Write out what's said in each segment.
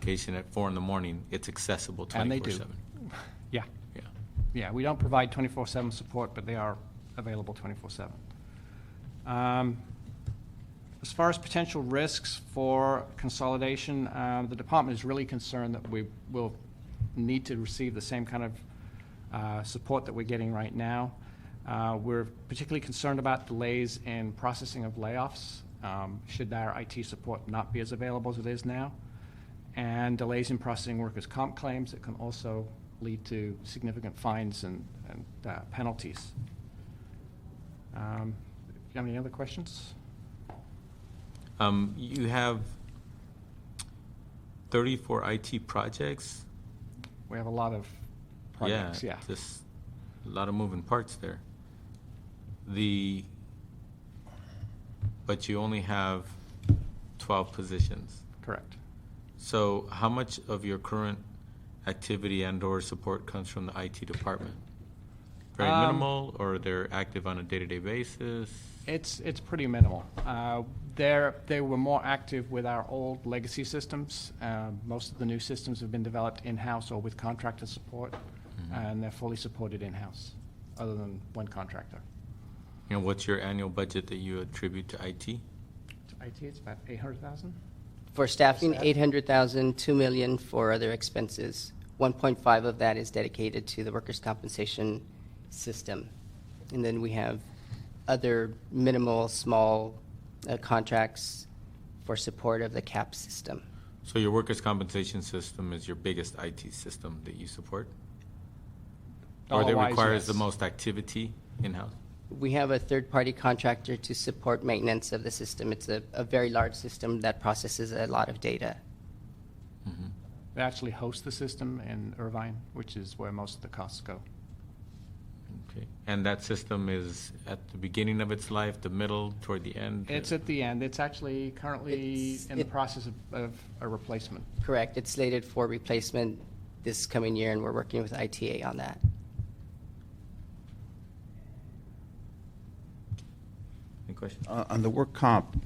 Vacation at four in the morning, it's accessible And they do. twenty-four seven. Yeah, Yeah. yeah, we don't provide 24/7 support, but they are available 24/7. Um, As far as potential risks for consolidation, uh, the department is really concerned that we will need to receive the same kind of uh, support that we're getting right now. Uh, We're particularly concerned about delays in processing of layoffs, um, should our IT support not be as available as it is now and delays in processing workers' comp claims that can also lead to significant fines and, and uh, penalties. Um, Do you have any other questions? Um, you have thirty-four IT projects? We have a lot of projects, yeah. Just a lot of moving parts there. The, but you only have twelve positions. Correct. So how much of your current activity and/or support comes from the IT department? Very Um, minimal, or they're active on a day-to-day basis? It's, it's pretty minimal. Uh, They're, they were more active with our old legacy systems. Uh, Most of the new systems have been developed in-house or with contractor support, Mm-hmm. and they're fully supported in-house, other than one contractor. And what's your annual budget that you attribute to IT? IT, it's about 800,000? For staffing, 800,000, 2 million for other expenses. 1.5 of that is dedicated to the workers' compensation system. And then we have other minimal, small uh, contracts for support of the CAP system. So your workers' compensation system is your biggest IT system that you support? Or that Dollar-wise, requires the yes. most activity in-house? We have a third-party contractor to support maintenance of the system. It's a, a very large system that processes a lot of data. They actually host the system in Irvine, which is where most of the costs go. Okay. And that system is at the beginning of its life, the middle, toward the end? It's at the end. It's actually currently It's- in the it- process of, of a replacement. Correct, it's slated for replacement this coming year, and we're working with ITA on that. Any questions? Uh, On the work comp,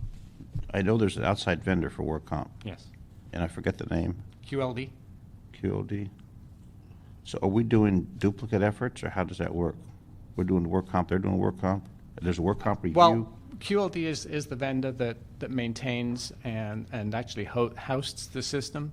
I know there's an outside vendor for work comp, Yes. and I forget the name, QLD? QOD. So are we doing duplicate efforts, or how does that work? We're doing work comp, they're doing work comp, there's a work comp review? Well, QLD is, is the vendor that, that maintains and, and actually ho- hosts the system.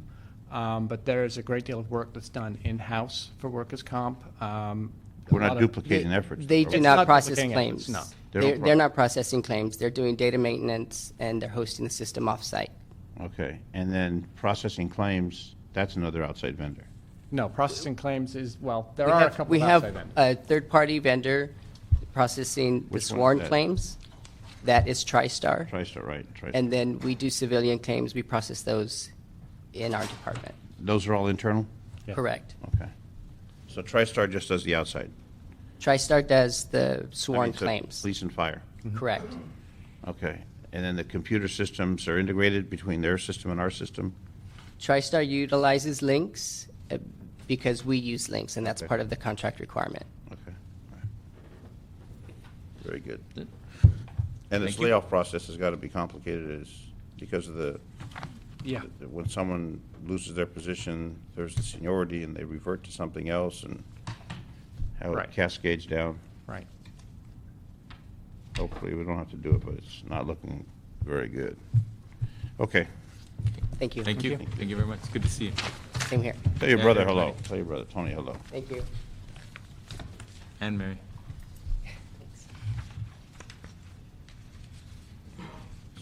Um, but there is a great deal of work that's done in-house for workers' comp. Um, a We're lot not of- duplicating efforts? They though, do right? It's not not process duplicating efforts, claims. no. They don't They're, pro- they're not processing claims. They're doing data maintenance and they're hosting the system offsite. Okay, and then processing claims, that's another outside vendor. No, processing claims is, well, there We are a have- couple We of have outside vendors. a third-party vendor processing the Which one is sworn that? claims. That is TriStar. TriStar, right, TriStar. And then we do civilian claims. We process those in our department. Those are all internal? Correct. Okay. So TriStar just does the outside? TriStar does the I sworn mean, so claims. Police and fire, Mm-hmm. Correct. okay. And then the computer systems are integrated between their system and our system? TriStar utilizes links uh, because we use links and that's Okay. part of the contract requirement. Okay. Very good. Good. And this Thank you. layoff process has got to be complicated is because of the, Yeah. when someone loses their position, there's the seniority and they revert to something else and how Right. it cascades down. Right. Hopefully, we don't have to do it, but it's not looking very good. Okay. Thank you. Thank you. Thank you very much. Good to see you. Same here. Tell your Yeah, brother yeah, hello. Tony. Tell your brother, Tony, hello. Thank you. And Mary.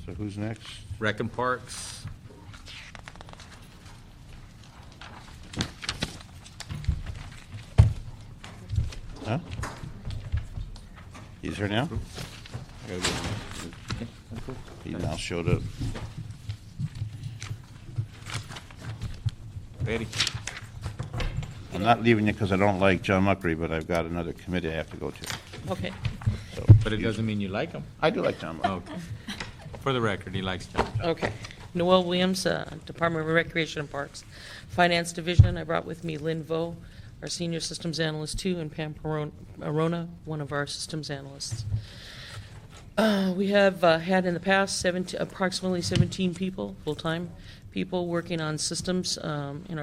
So who's next? Rec and Parks. Huh? He's here now? He now showed up. Betty. I'm not leaving you because I don't like John Muckery, but I've got another committee I have to go to. Okay. So, But it excuse doesn't me. mean you like him. I do like John Muckery. Okay. For the record, he likes John. Okay. Noel Williams, uh, Department of Recreation and Parks, Finance Division. I brought with me Lynn Vo, our Senior Systems Analyst too, and Pam Peron- Arona, one of our Systems Analysts. Uh, We have uh, had in the past 17 approximately 17 people, full-time, people working on systems um, in our.